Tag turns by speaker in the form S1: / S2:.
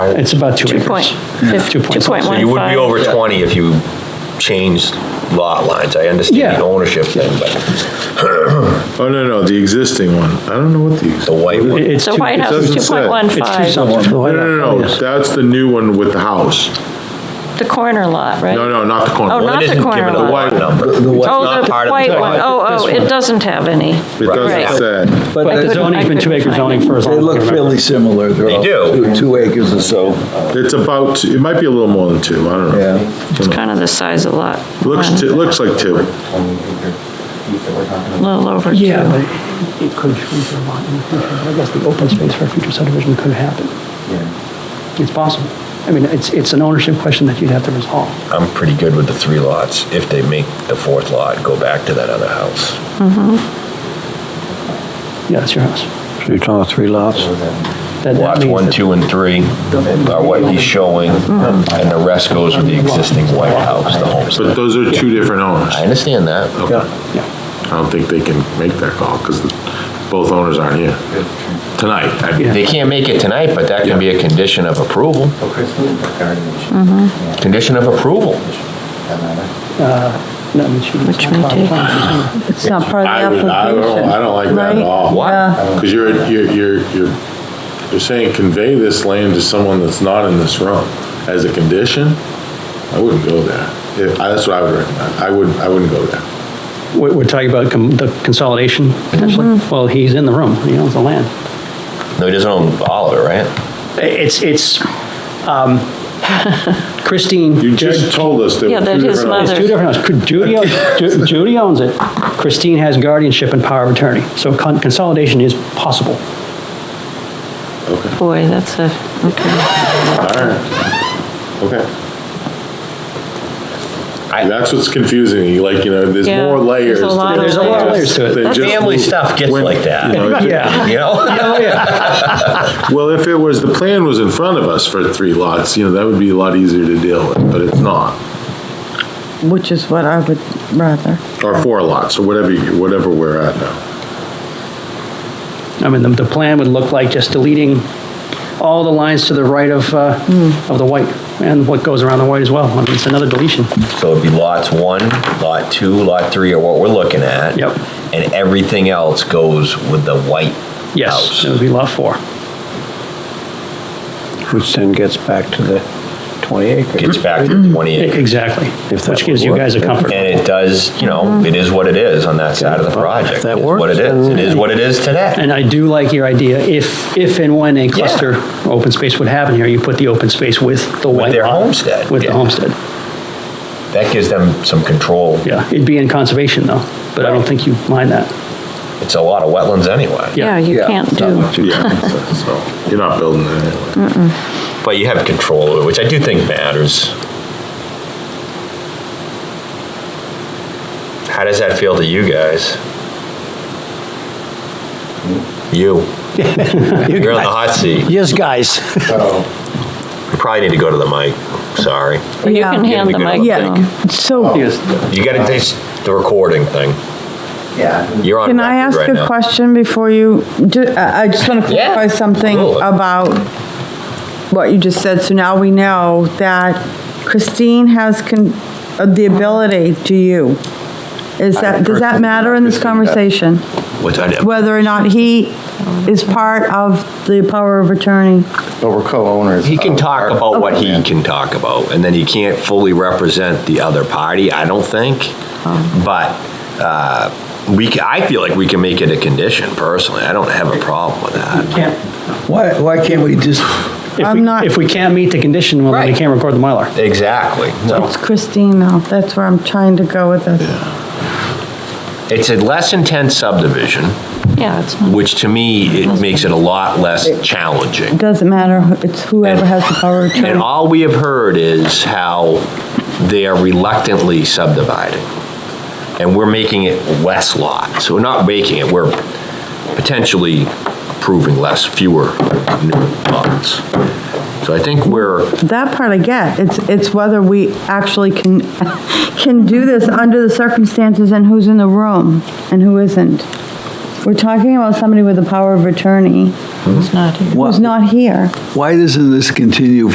S1: It's about two acres.
S2: point-
S1: Two point
S2: two point
S1: something.
S3: So you would be
S2: 1.5.
S3: over 20 if you changed lot lines. I understand
S1: Yeah.
S3: the ownership thing, but
S4: Oh, no, no, the existing one. I don't know what the.
S3: the white
S1: It-
S3: one,
S1: It's
S2: So
S1: two,
S2: White
S1: it's
S2: House is
S4: doesn't say.
S1: two
S2: 2.15,
S1: something.
S4: No, no, no, that's the new one with the house.
S2: the corner lot, right?
S4: No, no, not the
S2: Oh,
S4: corner.
S2: not
S3: it
S2: the
S3: isn't
S2: corner
S3: given a
S2: lot.
S3: lot number. It's
S2: Oh,
S3: not
S2: the
S3: part of
S2: white
S3: the
S2: one.
S3: lot.
S2: Oh, oh, it doesn't have any.
S4: It
S2: Right.
S4: doesn't say.
S1: But the zoning's been two acre zoning for as long
S5: They
S1: as I
S5: look
S1: can remember.
S5: fairly similar. They're
S3: They
S5: all
S3: do.
S5: two- Two acres or so.
S4: It's about, it might be a little more than two, I don't know.
S5: Yeah.
S2: It's kind of the size of lot.
S4: Looks,
S2: one,
S4: t- looks like two.
S2: A little over two.
S1: Yeah, but it- it could shrink a lot in the future. I guess the open space for a future subdivision could happen. It's possible. I mean, it's, it's an ownership question that you'd have to resolve.
S3: I'm pretty good with the three lots. If they make the fourth lot, go back to that other house.
S1: Yeah, it's your house.
S5: You're talking three lots?
S1: That- that
S3: Lots
S1: means
S3: one,
S1: that-
S3: two, and three are what he's showing, and the rest goes with the existing white house, the
S4: But
S3: homestead.
S4: those are two different owners.
S3: I understand that.
S4: Okay.
S1: Yeah,
S4: I don't think they can make that call because both owners aren't here tonight. I mean,
S3: They can't make it tonight, but that can be a condition of approval.
S1: Mm-hmm.
S3: Condition of approval.
S1: no, I mean, she-
S2: Which may take-
S6: It's not part
S4: I
S6: of
S4: would,
S6: the
S4: I don't, I
S6: application.
S4: don't like that at
S6: Right?
S4: all.
S3: What?
S4: Because you're, you're, you're, you're, you're saying convey this land to someone that's not in this room as a condition? I wouldn't go there. If- I- That's what I would recommend. I wouldn't, I wouldn't go there.
S1: We're, we're talking about com- the consolidation potentially?
S2: Mm-hmm.
S1: Well, he's in the room, he owns the land.
S3: No, he doesn't own all of it, right?
S1: It's, it's, um, Christine.
S4: You just told us there
S2: Yeah,
S4: were
S2: that
S4: two
S2: his
S4: different
S1: It's
S2: mother-
S4: owners.
S1: two different houses. Judy owns, Ju- Judy owns it. Christine has guardianship and power of attorney. So con- consolidation is possible.
S2: Boy, that's a,
S4: All right. Okay.
S3: I-
S4: That's what's confusing. You like, you know, there's
S2: Yeah,
S4: more layers.
S2: there's a
S4: to
S2: lot
S4: this
S2: of There's a lot
S1: of
S4: just-
S1: layers to it.
S4: than just
S3: Family
S4: move-
S3: stuff gets
S4: when-
S3: like that.
S4: you know, it-
S3: You know?
S1: Oh, yeah.
S4: Well, if it was, the plan was in front of us for three lots, you know, that would be a lot easier to deal with, but it's not.
S6: Which is what I would rather.
S4: Or four lots, or whatever, you- whatever we're at now.
S1: I mean, the, the plan would look like just deleting all the lines to the right of, uh,
S5: Hmm.
S1: of the white and what goes around the white as well. I mean, it's another deletion.
S3: So it'd be lots one, lot two, lot three are what we're looking at.
S1: Yep.
S3: And everything else goes with the white
S1: Yes,
S3: house.
S1: it would be lot four.
S5: Which then gets back to the 20 acres.
S3: Gets back to 20
S1: E-
S3: acres.
S1: Exactly.
S5: If that
S1: Which gives
S5: would
S1: you
S5: work.
S1: guys a comfort.
S3: And it does, you know, it is what it is on that side of the
S5: Well, if
S3: project.
S5: that
S3: It's
S5: works,
S3: What it is,
S5: then-
S3: it is what it is today.
S1: And I do like your idea, if, if and when a cluster open space would happen here, you put the open space with the white
S3: their
S1: lot,
S3: homestead,
S1: With the
S3: yeah.
S1: homestead.
S3: That gives them some control.
S1: Yeah, it'd be in conservation though, but I don't think you mind that.
S3: It's a lot of wetlands anyway.
S2: yeah, you can't do.
S4: Yeah, so, you're not building it anyway.
S3: But you have control over it, which I do think matters. How does that feel to you guys? You. You're on the hot seat. You
S5: Yes, guys.
S3: probably need to go to the mic. Sorry.
S2: You can hand the
S3: Yeah.
S2: mic down.
S6: Yeah,
S3: Oh,
S6: so
S1: Yes.
S3: You got to taste the recording thing. Yeah. You're on
S6: can I
S3: record
S6: ask
S3: right
S6: a
S3: now.
S6: question before you, ju- I I just want to
S3: Yeah,
S6: clarify something
S3: absolutely.
S6: about what you just said. So now we know that Christine has con- uh, the ability to you. Is that, does that matter in this conversation?
S3: Which I did.
S6: Whether or not he is part of the power of attorney?
S7: But we're co-owners.
S3: He can
S7: of
S3: talk
S7: our-
S3: about what he can talk about, and then he can't fully represent the other party, I don't think. But uh, we, ca- I feel like we can make it a condition personally. I don't have a problem with that.
S5: Why, why can't we just,
S1: If
S6: I'm not-
S1: we, if we can't meet the condition, well, then we
S3: Right.
S1: can't record the Mylar.
S3: Exactly. No,
S6: It's Christine now, that's where I'm trying to go with this.
S3: it's a less intense subdivision,
S2: Yeah, it's not.
S3: which to me, it makes it a lot less challenging.
S6: It doesn't matter, who- it's whoever has the power of
S3: And
S6: attorney.
S3: all we have heard is how they are reluctantly subdividing. And we're making it less lots. We're not making it, we're potentially approving less, fewer new lots. So I think we're,
S6: That part I get, it's, it's whether we actually can, can do this under the circumstances and who's in the room and who isn't. We're talking about somebody with a power of attorney
S8: it's not here.
S6: who's not here.
S1: Why doesn't this continue